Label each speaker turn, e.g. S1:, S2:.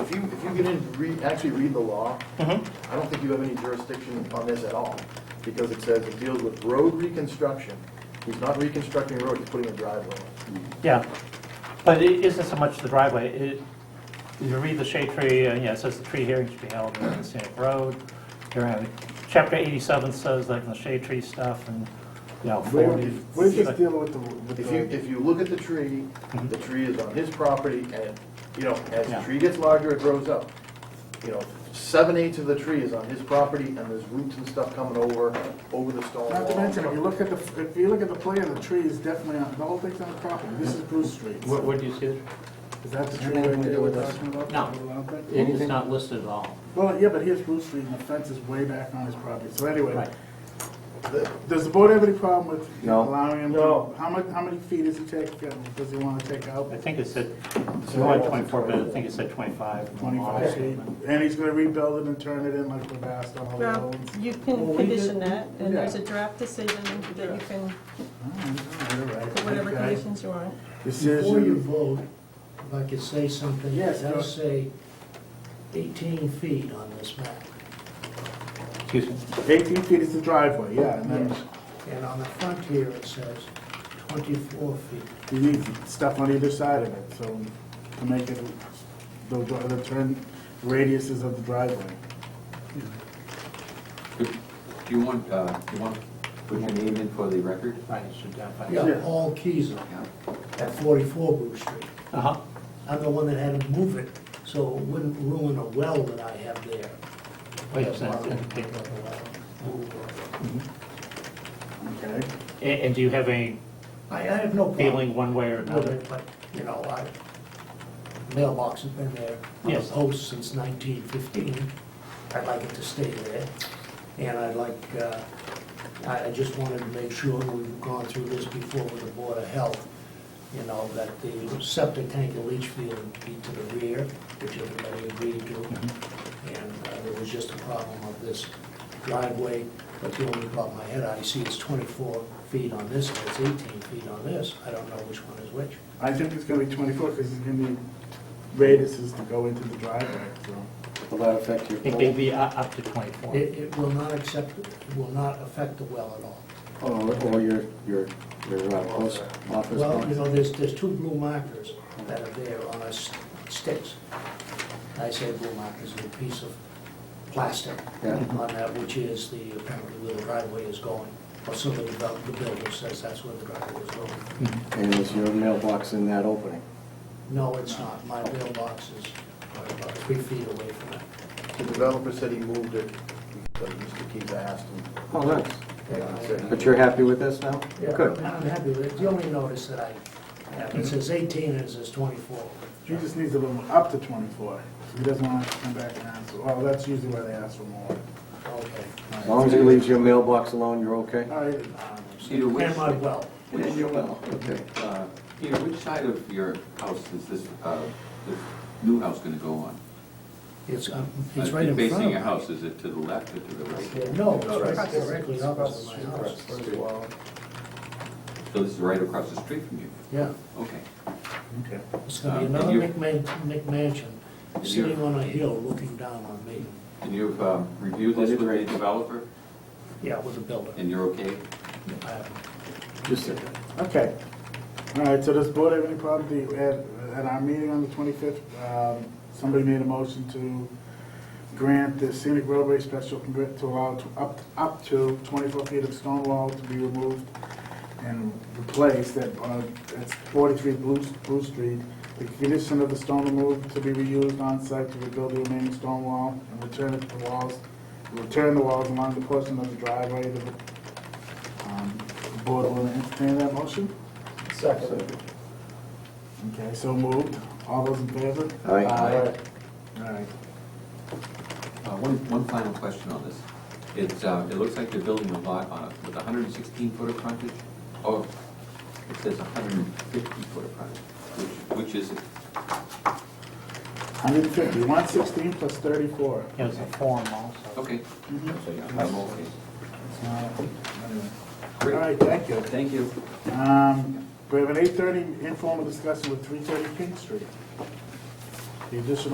S1: If you, if you get in, read, actually read the law,
S2: Mhm.
S1: I don't think you have any jurisdiction on this at all, because it says it deals with road reconstruction. He's not reconstructing a road, he's putting a driveway.
S2: Yeah, but it isn't so much the driveway, it, you read the shade tree, and yeah, it says the tree hearing should be held on the scenic road. You're having- Chapter 87 says like the shade tree stuff and, you know,
S3: We're
S2: 40.
S3: we're just
S2: like-
S3: dealing with the, with
S1: If you,
S3: the,
S1: if you look at the tree, the tree is on his property, and, you know, as the
S2: Yeah.
S1: tree gets larger, it grows up. You know, seven eighths of the tree is on his property, and there's roots and stuff coming over, over the stone wall.
S3: not to mention, if you look at the, if you look at the plan, the tree is definitely on, the whole thing's on the property. This is Bruce Street.
S4: What, what do you see?
S3: Is that the tree
S4: Anything
S3: right
S4: to
S3: there
S4: do
S3: we're
S4: with us?
S3: talking about?
S4: No.
S3: Well,
S4: It's not listed at all.
S3: Well, yeah, but here's Bruce Street, and the fence is way back on his property. So anyway,
S4: Right.
S3: th- does the board have any problem with you know,
S5: No.
S3: allowing him? to-
S1: No.
S3: How much, how many feet does he take, um, does he want to take out?
S2: I think it said, it's only 24, but I think it said 25. in the law
S3: Twenty-five feet?
S2: statement.
S3: And he's gonna rebuild it and turn it in like we've asked on all the
S6: Well,
S3: old.
S6: you
S3: Well,
S6: can
S3: we
S6: condition
S3: did-
S6: that, and there's a
S3: yeah.
S6: draft decision that you can, put whatever
S3: Whatever
S6: conditions you want.
S7: Before you
S3: Decision,
S7: vote, if I could say something,
S3: Yes, go.
S7: I'll say 18 feet on this map.
S2: Excuse me.
S3: eighteen feet is the driveway, yeah, and then
S7: And on the front here, it says 24 feet.
S3: you need stuff on either side of it, so to make it, the, the turn radiuses of the driveway.
S5: Do you want, uh, do you want to put your name in for the record?
S4: Right, it's identified.
S7: Yeah,
S3: Yeah.
S7: all keys are at 44 Bruce Street.
S2: Uh-huh.
S7: I'm the one that had to move it, so it wouldn't ruin a well that I have there.
S2: Oh, yes, that's indicated.
S3: Okay.
S2: A- And do you have any
S7: I, I have no problem
S2: feeling one way or
S7: with
S2: another?
S7: it, but, you know, I, mailbox has been there on a
S2: Yes.
S7: post since 1915. I'd like it to stay there, and I'd like, uh, I I just wanted to make sure we've gone through this before with the Board of Health, you know, that the septic tank and leach field be to the rear, which everybody agreed to. And uh, there was just a problem of this driveway, but the only problem I had, I see is 24 feet on this, and it's 18 feet on this. I don't know which one is which.
S3: I think it's gonna be twenty-four, because it's gonna be radiuses to go into the driveway, so.
S5: Will that affect
S2: I think they'd be u- up to 24.
S7: It, it will not accept, it will not affect the well at all.
S5: Or, or your, your, your uh, post office?
S7: Well, you know, there's, there's two blue markers that are there on us sticks. I say blue markers, a piece of plastic
S5: Yeah.
S7: on that, which is the, apparently where the driveway is going. Or so the, develop- the builder says that's where the driveway is going.
S5: And is your mailbox in that opening?
S7: No, it's not. My mailbox is about three feet away from that.
S1: The developer said he moved it, because Mr. Keyes asked him.
S5: Oh, nice.
S1: Yeah, I said-
S5: But you're happy with this now?
S7: Yeah,
S5: Good.
S7: I'm happy with it. The only notice that I have, it says 18 and it says 24.
S3: He just needs a little, up to twenty-four, he doesn't want to come back and ask, well, that's usually why they ask for more.
S7: Okay.
S5: As long as it leaves your mailbox alone, you're okay?
S3: All right,
S5: Cedar Woods.
S7: And my well.
S5: And your well, okay.
S8: Uh, Peter, which side of your house is this, uh, this new house gonna go on? Uh,
S7: It's, um, it's right in front of me.
S8: Facing your house, is it to the left or to the right?
S7: No, it's right directly opposite my house.
S8: So this is right across the street from you?
S7: Yeah,
S8: Okay.
S3: okay.
S7: it's gonna be
S8: Um,
S7: another
S8: and
S7: McMan- McMansion,
S8: And you're-
S7: sitting on a hill looking down on me.
S8: And you've um, reviewed this with the developer,
S7: Yeah, with a building.
S8: and you're okay?
S7: I-
S5: Just a
S3: Okay. All right, so does the board have any problem, the, at, at our meeting on the twenty-fifth, um, somebody made a motion to grant the scenic roadway special permit to allow to, up, up to twenty-four feet of stone wall to be removed and replaced at, uh, at forty-three Blue, Blue Street. The condition of the stone removed to be reused on site to rebuild the remaining stone wall and return it to the walls, return the walls along the portion of the driveway to the um, The Board will entertain that motion?
S1: Second.
S3: Okay, so moved. All those in favor?
S5: Aye.
S3: All right.
S8: Uh, One, one final question on this. It's, uh, it looks like they're building a lot on a- with 116 foot of frontage, or it says 150 foot of frontage, which, which is it?
S3: 150, 116 plus 34.
S2: It was a form also.
S8: Okay. I'm okay.
S3: It's not- anyway.
S8: Great.
S3: All right, thank you.
S8: Thank you.
S3: Um, We have an 8:30 informal discussion with 330 King Street. The additional